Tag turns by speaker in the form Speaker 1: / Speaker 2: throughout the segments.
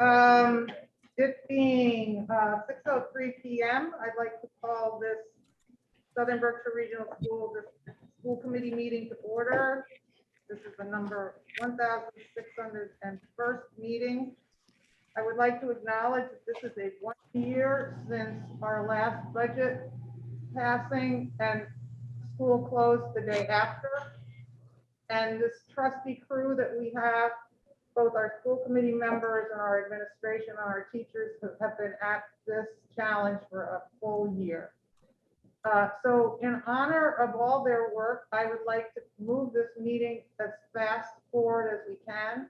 Speaker 1: Um, it being, uh, six oh three PM, I'd like to call this Southern Berkshire Regional School, this school committee meeting to order. This is the number one thousand six hundred and first meeting. I would like to acknowledge that this is a one year since our last budget passing and school closed the day after. And this trusty crew that we have both our school committee members and our administration and our teachers have- have been at this challenge for a full year. Uh, So in honor of all their work, I would like to move this meeting as fast forward as we can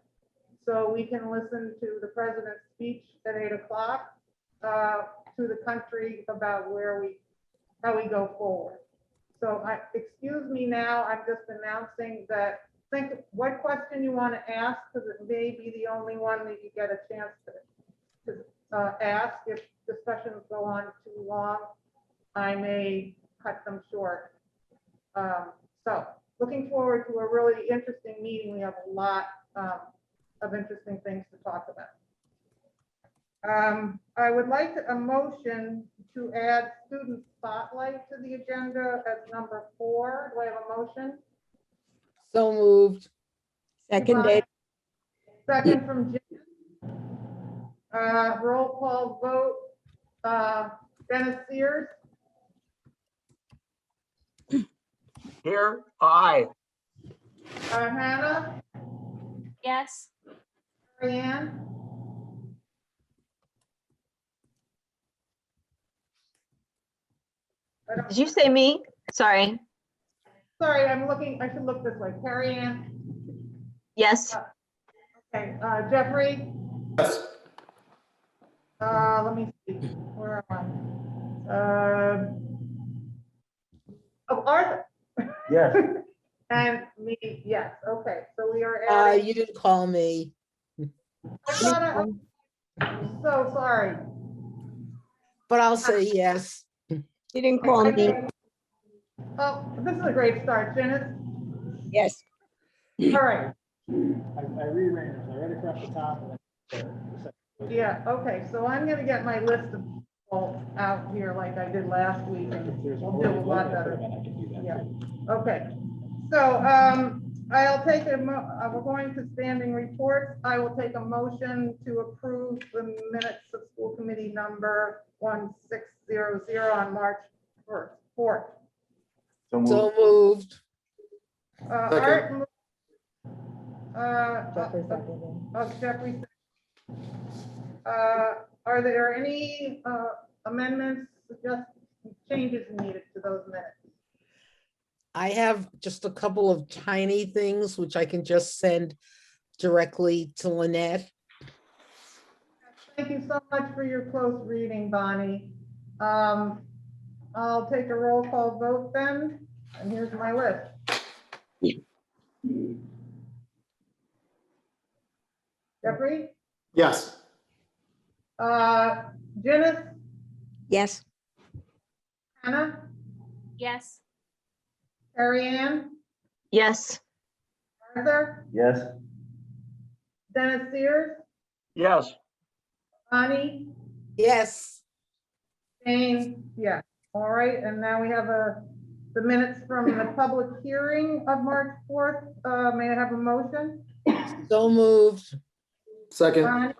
Speaker 1: so we can listen to the president's speech at eight o'clock uh, to the country about where we, how we go forward. So I, excuse me now, I'm just announcing that think what question you want to ask, because it may be the only one that you get a chance to, to uh, ask. If discussions go on too long, I may cut them short. Um, So, looking forward to a really interesting meeting. We have a lot um, of interesting things to talk about. Um, I would like a motion to add student spotlight to the agenda as number four. Do I have a motion?
Speaker 2: So moved.
Speaker 3: Seconded,
Speaker 1: Second from Jim. Uh, roll call vote, uh, Dennis Sears,
Speaker 4: Here, aye.
Speaker 1: uh, Hannah,
Speaker 5: Yes.
Speaker 1: Diane. I don't-
Speaker 6: Did you say me? Sorry.
Speaker 1: Sorry, I'm looking, I should look this way. Carrie Ann,
Speaker 6: Yes,
Speaker 1: okay, uh, Jeffrey? Yes. Uh, let me see, where am I? Uh, Oh, Arthur,
Speaker 7: Yes,
Speaker 1: and me, yes, okay, so we are
Speaker 2: Uh,
Speaker 1: adding.
Speaker 2: you didn't call me.
Speaker 1: I thought I- I'm So sorry.
Speaker 2: But I'll say yes.
Speaker 3: you didn't call me.
Speaker 1: Oh, this is a great start, Janice.
Speaker 3: Yes,
Speaker 1: All right,
Speaker 7: I I reran it, I read across the top. and then-
Speaker 1: yeah, okay, so I'm gonna get my list of people out here like I did last week.
Speaker 7: If
Speaker 1: and
Speaker 7: there's a
Speaker 1: We'll do a
Speaker 7: word
Speaker 1: lot
Speaker 7: limit,
Speaker 1: better.
Speaker 7: then I can do that.
Speaker 1: Yeah. Okay, so, um, I'll take a, mo- uh, we're going to standing reports. I will take a motion to approve the minutes of school committee number one six zero zero on March first, fourth.
Speaker 2: So moved.
Speaker 1: Uh, Art. mo- Uh, of Jeffrey. Uh, Are there any uh, amendments, just changes needed to those minutes?
Speaker 2: I have just a couple of tiny things which I can just send directly to Lynette.
Speaker 1: Thank you so much for your close reading, Bonnie. Um, I'll take a roll call vote then, and here's my list. Jeffrey,
Speaker 8: Yes,
Speaker 1: uh, Janice,
Speaker 3: yes,
Speaker 1: Hannah,
Speaker 5: Yes.
Speaker 1: Carrie Ann,
Speaker 6: yes,
Speaker 1: Arthur,
Speaker 7: Yes,
Speaker 1: Dennis Sears,
Speaker 4: Yes,
Speaker 1: Bonnie,
Speaker 2: Yes,
Speaker 1: Jane, yeah, all right, and now we have a, the minutes from the public hearing of March fourth, uh, may I have a motion?
Speaker 2: so moved.
Speaker 8: second,
Speaker 1: Ronnie,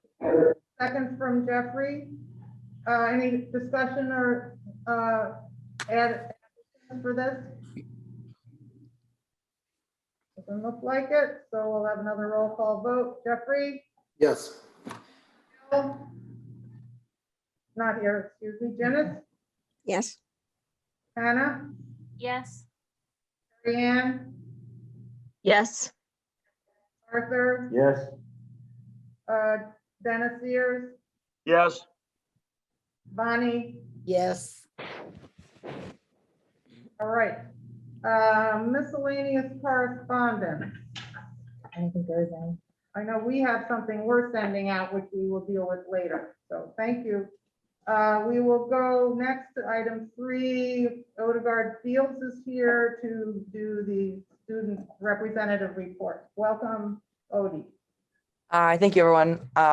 Speaker 1: Second from Jeffrey, uh, any discussion or, uh, add, for this? Doesn't look like it, so we'll have another roll call vote, Jeffrey?
Speaker 8: yes,
Speaker 1: Bill? Not here, excuse me, Janice,
Speaker 3: yes,
Speaker 1: Hannah,
Speaker 5: Yes.
Speaker 1: Ann,
Speaker 6: yes,
Speaker 1: Arthur?
Speaker 7: yes,
Speaker 1: Uh, Dennis Sears,
Speaker 4: yes,
Speaker 1: Bonnie,
Speaker 2: Yes,
Speaker 1: all right. Uh, Miscellaneous correspondence. I know we have something we're sending out, which we will deal with later, so thank you. Uh, We will go next to item three. Odegaard Fields is here to do the student representative report. Welcome, Odie.
Speaker 9: Uh, thank you, everyone. Uh,